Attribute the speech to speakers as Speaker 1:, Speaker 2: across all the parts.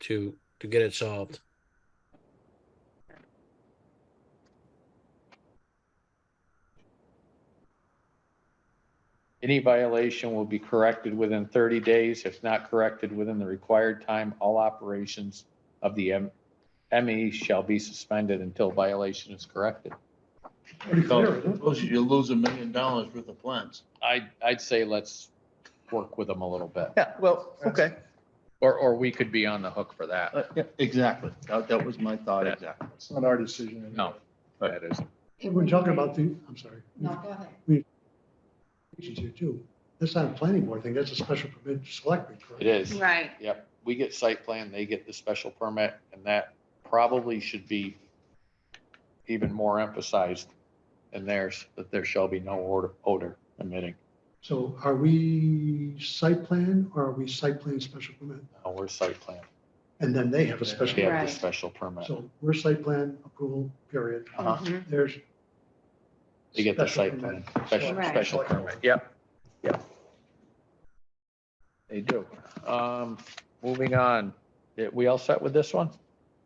Speaker 1: to to get it solved.
Speaker 2: Any violation will be corrected within 30 days. If not corrected within the required time, all operations of the M- ME shall be suspended until violation is corrected.
Speaker 3: Pretty
Speaker 4: So-
Speaker 3: clear, isn't it?
Speaker 4: Suppose you lose a million dollars worth of plants.
Speaker 2: I, I'd say let's work with them a little bit,
Speaker 4: Yeah, well, okay,
Speaker 2: or, or we could be on the hook for that.
Speaker 4: Uh, yeah, exactly. That, that was my thought, exactly.
Speaker 3: It's not our decision. anyway.
Speaker 2: No, that is,
Speaker 3: We're talking about the, I'm sorry.
Speaker 5: No, go ahead.
Speaker 3: Agencies here too. That's not a planning board thing. That's a special permit select. board, correct?
Speaker 2: it is.
Speaker 5: Right.
Speaker 2: Yep, we get site plan, they get the special permit, and that probably should be even more emphasized in theirs, that there shall be no odor- odor emitting.
Speaker 3: So are we site plan or are we site plan special permit?
Speaker 2: No, we're site plan.
Speaker 3: And then they have a
Speaker 2: They
Speaker 3: special.
Speaker 2: have
Speaker 5: Right.
Speaker 2: the special permit.
Speaker 3: So we're site plan approval, period.
Speaker 2: Uh-huh.
Speaker 5: Mhm.
Speaker 3: There's.
Speaker 2: They get the
Speaker 3: special
Speaker 2: site plan,
Speaker 3: permit.
Speaker 2: special,
Speaker 5: Right.
Speaker 2: special permit. Yep, yep. They do. Um, moving on, Yeah, we all set with this one?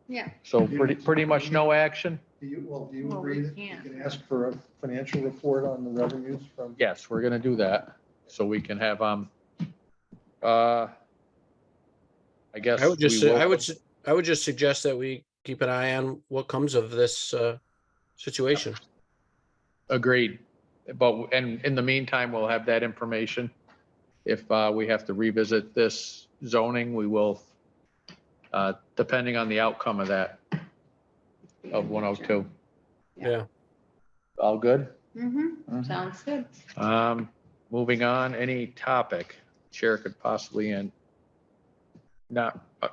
Speaker 5: Yeah.
Speaker 2: So pretty, pretty much no action?
Speaker 6: Do you, well, do you
Speaker 5: Well, we
Speaker 6: agree that you
Speaker 5: can't.
Speaker 6: can ask for a financial report on the revenues from?
Speaker 2: Yes, we're gonna do that, so we can have, um, uh, I guess.
Speaker 1: I would just
Speaker 2: we
Speaker 1: su- I
Speaker 2: will-
Speaker 1: would su- I would just suggest that we keep an eye on what comes of this uh, situation.
Speaker 2: Agreed, but, and in the meantime, we'll have that information. If, uh, we have to revisit this zoning, we will, uh, depending on the outcome of that, of one oh two.
Speaker 5: Yeah.
Speaker 1: Yeah.
Speaker 2: All good?
Speaker 5: Mm-hmm,
Speaker 4: Mhm.
Speaker 5: sounds good.
Speaker 2: Um, moving on, any topic chair could possibly and not, uh,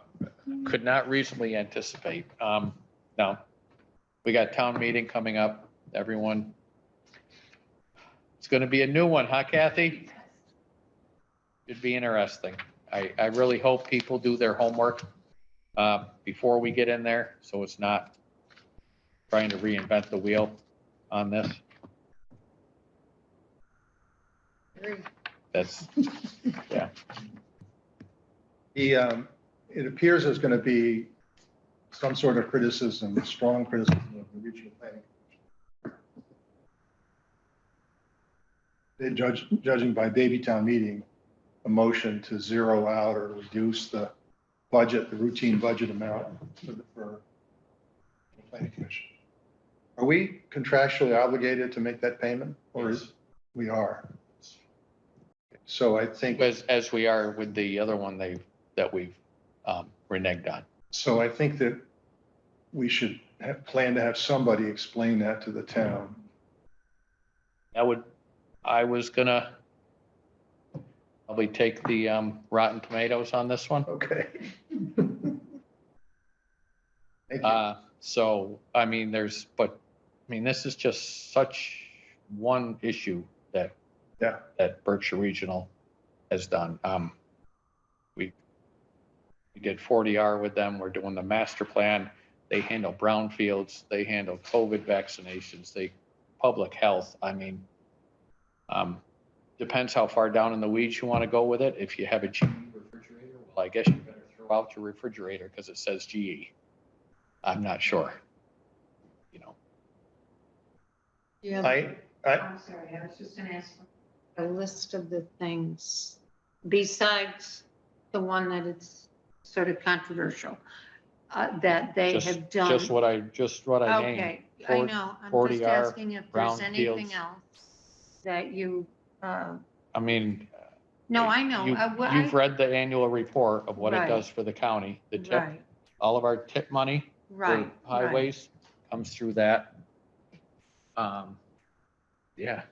Speaker 2: could not reasonably anticipate. Um, no. We got town meeting coming up, everyone. It's gonna be a new one, huh Kathy? It'd be interesting. I, I really hope people do their homework uh, before we get in there, so it's not trying to reinvent the wheel on this.
Speaker 5: Agree.
Speaker 2: That's,
Speaker 6: The, um, it appears there's going to be some sort of criticism, strong criticism of the regional planning. They judge, judging by baby town meeting, a motion to zero out or reduce the budget, the routine budget amount for the, for the planning commission. Are we contractually obligated to make that payment or is, we are? So I think.
Speaker 2: as, as we are with the other one they, that we've um, reneged on.
Speaker 6: So I think that we should have, plan to have somebody explain that to the town.
Speaker 2: That would, I was gonna probably take the um, rotten tomatoes on this one.
Speaker 6: Okay. Thank you.
Speaker 2: Uh, So, I mean, there's, but, I mean, this is just such one issue that.
Speaker 6: Yeah.
Speaker 2: That Berkshire Regional has done. Um, We, we did 40R with them. We're doing the master plan. They handle brownfields. They handle COVID vaccinations. They, public health. I mean, um, depends how far down in the weeds you want to go with it. If you have a GE refrigerator, well, I guess you better throw out your refrigerator because it says E. GE. I'm not sure. You know,
Speaker 5: Yeah.
Speaker 6: I, I,
Speaker 5: I'm sorry, I was just gonna ask for a list of the things besides the one that it's sort of controversial, uh, that they
Speaker 2: Just-
Speaker 5: have done.
Speaker 2: just what I, just what I named.
Speaker 5: Okay, I
Speaker 2: for-
Speaker 5: know, I'm
Speaker 2: 40
Speaker 5: just
Speaker 2: are
Speaker 5: asking if there's
Speaker 2: brownfields.
Speaker 5: anything else that you, uh,
Speaker 2: I mean,
Speaker 5: no, I know.
Speaker 2: you-
Speaker 5: uh, what I-
Speaker 2: you've read the annual report of what it
Speaker 5: Right.
Speaker 2: does for the county, the tip,
Speaker 5: Right,
Speaker 2: all of our tip money. for
Speaker 5: right. right.
Speaker 2: Highways comes through that. Um, yeah,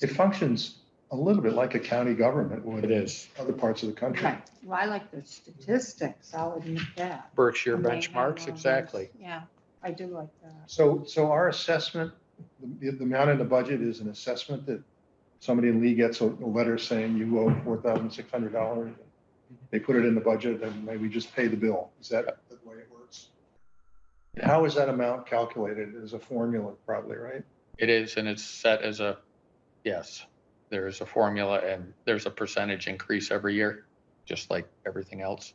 Speaker 6: it functions a little bit like a county government would
Speaker 2: it is.
Speaker 6: other parts of the country.
Speaker 5: Right, well, I like the statistics, I'll admit that.
Speaker 2: Berkshire
Speaker 5: And they have all
Speaker 2: benchmarks,
Speaker 5: those.
Speaker 2: exactly.
Speaker 5: Yeah, I do like that.
Speaker 6: So, so our assessment, the, the amount in the budget is an assessment that somebody in Lee gets a, a letter saying you owe four thousand six hundred dollars. They put it in the budget and maybe just pay the bill. Is that the way it works? And How is that amount calculated? Is a formula probably, right?
Speaker 2: It is, and it's set as a, yes, there is a formula and there's a percentage increase every year, just like everything else.